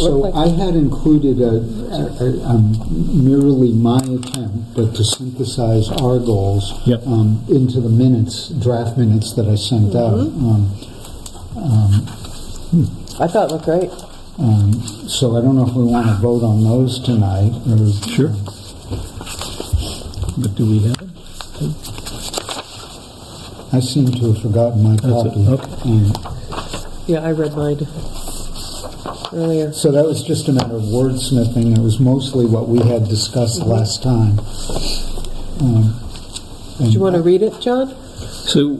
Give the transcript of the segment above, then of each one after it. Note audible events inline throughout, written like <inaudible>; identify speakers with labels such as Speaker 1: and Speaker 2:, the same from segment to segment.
Speaker 1: look
Speaker 2: So I
Speaker 1: like?
Speaker 2: had included a, a- um, merely my attempt, but to synthesize our goals
Speaker 3: Yep.
Speaker 2: um, into the minutes, draft minutes that I sent out.
Speaker 1: Mm-hmm.
Speaker 2: Um,
Speaker 1: I thought it looked great.
Speaker 2: um, So I don't know if we want to vote on those tonight, or... um,
Speaker 3: Sure. But do we have it?
Speaker 2: I seem to have forgotten my
Speaker 3: That's it,
Speaker 2: copy.
Speaker 3: okay.
Speaker 2: Um,
Speaker 1: Yeah, I read mine earlier.
Speaker 2: So that was just a matter of wordsmithing. It was mostly what we had discussed last time. Um,
Speaker 1: Do you
Speaker 2: and-
Speaker 1: want to read it, John?
Speaker 3: So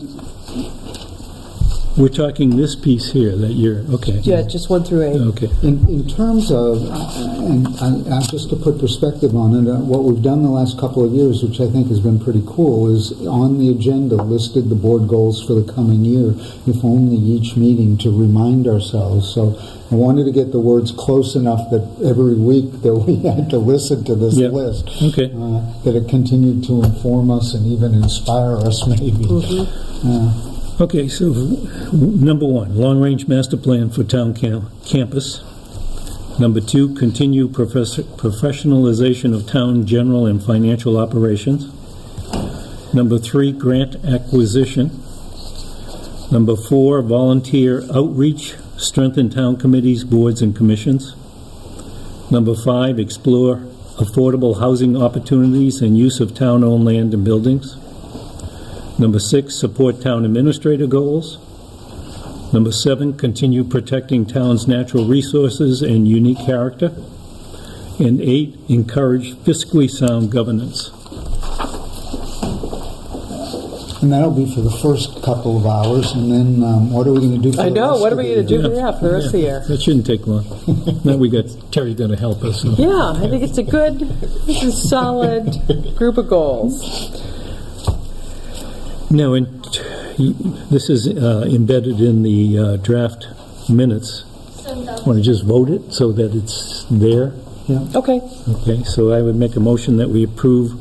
Speaker 3: we're talking this piece here that you're, okay.
Speaker 1: Yeah, just one through eight.
Speaker 3: Okay.
Speaker 2: In, in terms of, and I, I, just to put perspective on it, uh, what we've done the last couple of years, which I think has been pretty cool, is on the agenda listed the board goals for the coming year, if only each meeting to remind ourselves. So I wanted to get the words close enough that every week that we <laughs> had to listen to this
Speaker 3: Yeah.
Speaker 2: list,
Speaker 3: Okay.
Speaker 2: uh, that it continued to inform us and even inspire us, <laughs> maybe.
Speaker 1: Mm-hmm.
Speaker 2: Uh,
Speaker 3: Okay, so w- number one, long-range master plan for town cam- campus. Number two, continue profess- professionalization of town general and financial operations. Number three, grant acquisition. Number four, volunteer outreach, strengthen town committees, boards, and commissions. Number five, explore affordable housing opportunities and use of town-owned land and buildings. Number six, support town administrator goals. Number seven, continue protecting town's natural resources and unique character. And eight, encourage fiscally sound governance.
Speaker 2: And that'll be for the first couple of hours, and then, um, what are we gonna do for the
Speaker 1: I know,
Speaker 2: rest
Speaker 1: what are
Speaker 2: of
Speaker 1: we
Speaker 2: the
Speaker 1: going to
Speaker 2: year?
Speaker 1: do for that for the rest of the year?
Speaker 3: That shouldn't
Speaker 1: <laughs>
Speaker 3: take long. Now we got, Terry's going to help us. so-
Speaker 1: Yeah, I think it's a good, it's a solid group of goals.
Speaker 3: No, and t- y- this is uh, embedded in the uh, draft minutes. Want to just vote it so that it's there?
Speaker 1: Okay,
Speaker 3: Okay, so I would make a motion that we approve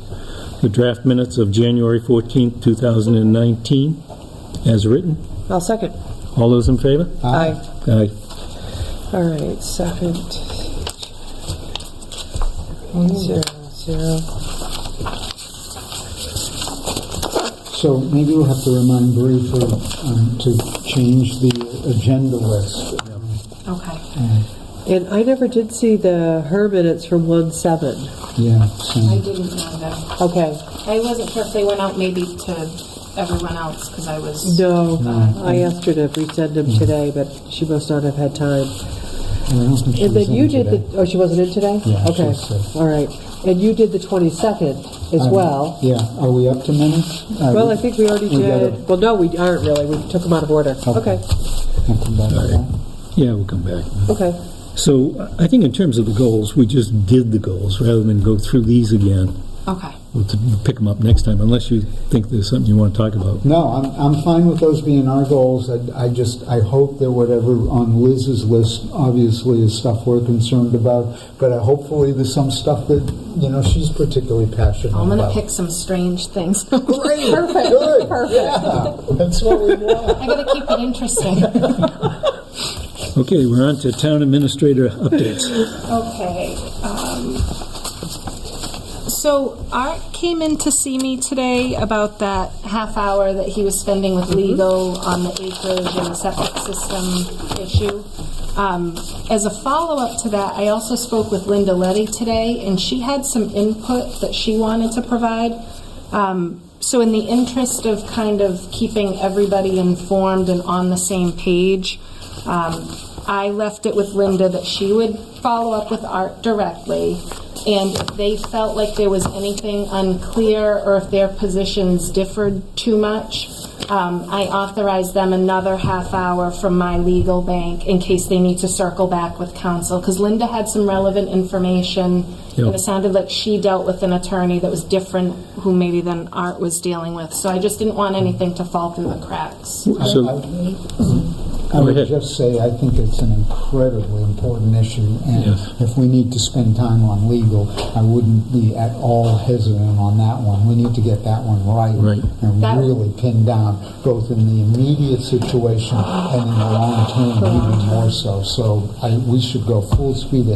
Speaker 3: the draft minutes of January 14th, 2019, as written.
Speaker 1: I'll second.
Speaker 3: All those in favor?
Speaker 1: Aye.
Speaker 3: Aye.
Speaker 1: All right, second. Zero, zero.
Speaker 2: So maybe we'll have to remind briefly um, to change the agenda list. Uh,
Speaker 4: Okay.
Speaker 1: And I never did see the her minutes from one seven.
Speaker 2: Yeah,
Speaker 4: I
Speaker 2: so,
Speaker 4: didn't know that.
Speaker 1: Okay,
Speaker 4: I wasn't sure if they went out maybe to everyone else because I was.
Speaker 1: no, I asked her to resend them today, but she must not have had time.
Speaker 2: and I don't think she
Speaker 1: And
Speaker 2: was
Speaker 1: then you
Speaker 2: in
Speaker 1: did
Speaker 2: today.
Speaker 1: the, oh, she wasn't in today?
Speaker 2: Yeah, she
Speaker 1: Okay,
Speaker 2: was sick.
Speaker 1: all right. And you did the twenty-second as
Speaker 2: Um,
Speaker 1: well.
Speaker 2: Yeah, are we up to minutes?
Speaker 1: Well, I think we already
Speaker 2: we got
Speaker 1: did, well, no, we aren't really, we took them out of order.
Speaker 2: Okay.
Speaker 1: Okay,
Speaker 2: I'll come back to that.
Speaker 3: Yeah, we'll come back.
Speaker 1: okay.
Speaker 3: So I I think in terms of the goals, we just did the goals rather than go through these again.
Speaker 4: Okay.
Speaker 3: We'll t- pick them up next time unless you think there's something you want to talk about.
Speaker 2: No, I'm, I'm fine with those being our goals. I, I just, I hope that whatever on Liz's list, obviously, is stuff we're concerned about, but I- hopefully there's some stuff that, you know, she's particularly passionate
Speaker 4: I'm gonna
Speaker 2: about.
Speaker 4: pick some strange things. <laughs>
Speaker 2: Perfect. Good, yeah, that's what we want.
Speaker 4: I gotta keep it interesting.
Speaker 3: Okay, we're on to town administrator updates.
Speaker 4: Okay. um, So Art came in to see me today about that half hour that he was spending with legal on the acreage and the septic system issue. Um, As a follow-up to that, I also spoke with Linda Letty today, and she had some input that she wanted to provide. Um, So in the interest of kind of keeping everybody informed and on the same page, um, I left it with Linda that she would follow up with Art directly, and if they felt like there was anything unclear or if their positions differed too much, um, I authorized them another half hour from my legal bank in case they need to circle back with counsel, because Linda had some relevant information, and
Speaker 3: Yeah.
Speaker 4: it sounded like she dealt with an attorney that was different who maybe than Art was dealing with, so I just didn't want anything to fall through the cracks.
Speaker 3: So,
Speaker 2: I
Speaker 3: Go
Speaker 2: would
Speaker 3: ahead.
Speaker 2: just say I think it's an incredibly important issue, and
Speaker 3: Yes.
Speaker 2: if we need to spend time on legal, I wouldn't be at all hesitant on that one. We need to get that one right
Speaker 3: Right.
Speaker 2: and
Speaker 4: That-
Speaker 2: really pin down, both in the immediate situation and in the long term, even more so. So I, we should go full speed